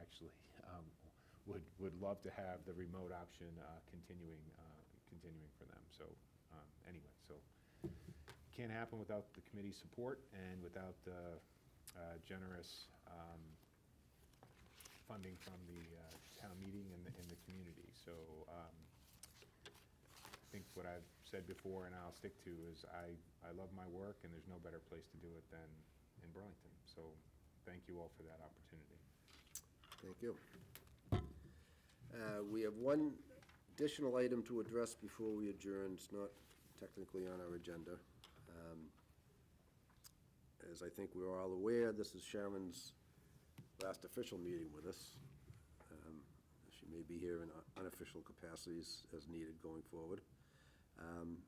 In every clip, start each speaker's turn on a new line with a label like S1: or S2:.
S1: actually, um, would, would love to have the remote option uh, continuing, uh, continuing for them. So um, anyway, so can't happen without the committee's support and without uh, uh, generous um, funding from the uh, town meeting and the, and the community. So um, I think what I've said before, and I'll stick to, is I, I love my work, and there's no better place to do it than in Burlington. So thank you all for that opportunity.
S2: Thank you. Uh, We have one additional item to address before we adjourn. It's not technically on our agenda. Um, As I think we're all aware, this is Sharon's last official meeting with us. Um, She may be here in unofficial capacities as needed going forward. Um,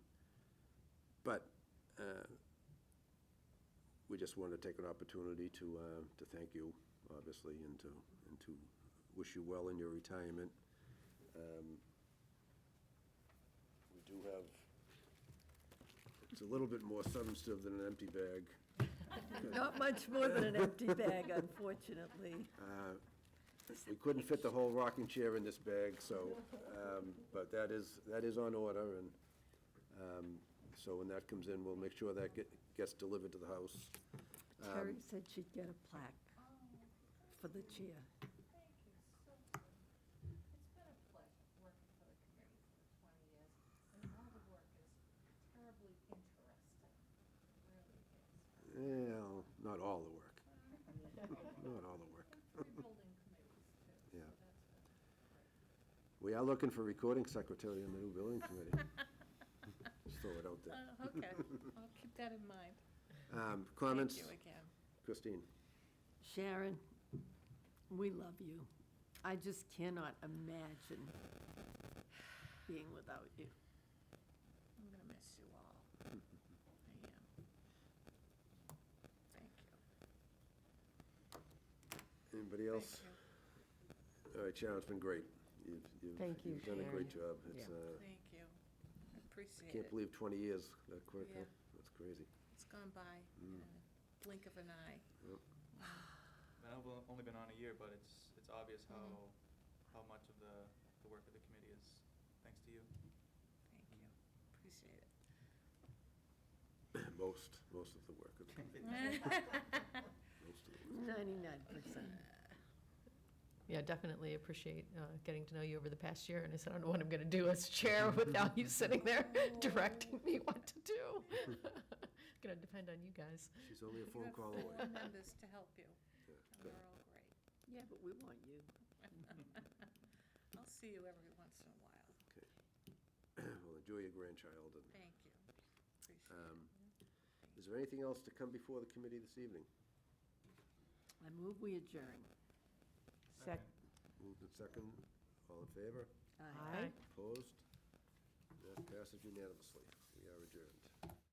S2: But uh, we just wanted to take an opportunity to, uh, to thank you, obviously, and to, and to wish you well in your retirement. Um, We do have, it's a little bit more substantive than an empty bag.
S3: Not much more than an empty bag, unfortunately.
S2: Uh, We couldn't fit the whole rocking chair in this bag, so, um, but that is, that is on order, and um, so when that comes in, we'll make sure that get- gets delivered to the house. Um,
S3: Terry said she'd get a plaque for the chair.
S4: Thank you so much. It's been a pleasure working for the committee for 20 years, and all the work is terribly interesting. It really is.
S2: Well, not all the work, not all the work.
S4: And three building committees, too.
S2: Yeah.
S4: So that's been
S2: We are looking for recording secretary in the new building committee. Just throw it out there.
S4: great. Uh, Okay, I'll keep that in mind.
S2: Um, Comments?
S4: again.
S2: Christine?
S3: Sharon, we love you. I just cannot imagine being without you.
S4: I'm going to miss you all. I am. Thank you.
S2: Anybody else? All right, Sharon, it's been great. You've- you've-
S3: Thank you,
S2: You've done a great
S3: Sharon.
S2: job. It's,
S3: Yeah.
S2: uh,
S4: Thank you. I appreciate
S2: can't believe 20 years that quick. huh?
S4: Yeah.
S2: That's crazy.
S4: It's gone by in
S2: Hmm.
S4: a blink of an eye.
S5: I know we've only been on a year, but it's, it's obvious how, how much of the, the work of the committee is thanks to you.
S4: Thank you. Appreciate it.
S2: Most, most of the work. of the committee. Most of the work.
S3: Ninety-nine percent.
S6: Yeah, definitely appreciate uh, getting to know you over the past year, and I said, I don't know what I'm going to do as chair without you sitting there directing me what to do. Going to depend on you guys.
S2: She's only a
S4: You
S2: phone
S4: have
S2: call
S4: four
S2: away.
S4: members to help you,
S2: Yeah,
S4: and
S2: good.
S4: they're all great.
S3: Yeah, but we want you.
S4: I'll see you every once in a while.
S2: Okay. Well, enjoy your grandchild. and,
S4: Thank you. Appreciate it.
S2: um, Is there anything else to come before the committee this evening?
S3: I move we adjourn. Second.
S2: Moved and second. All in favor?
S3: Aye.
S2: Opposed? That passes unanimously. We are adjourned.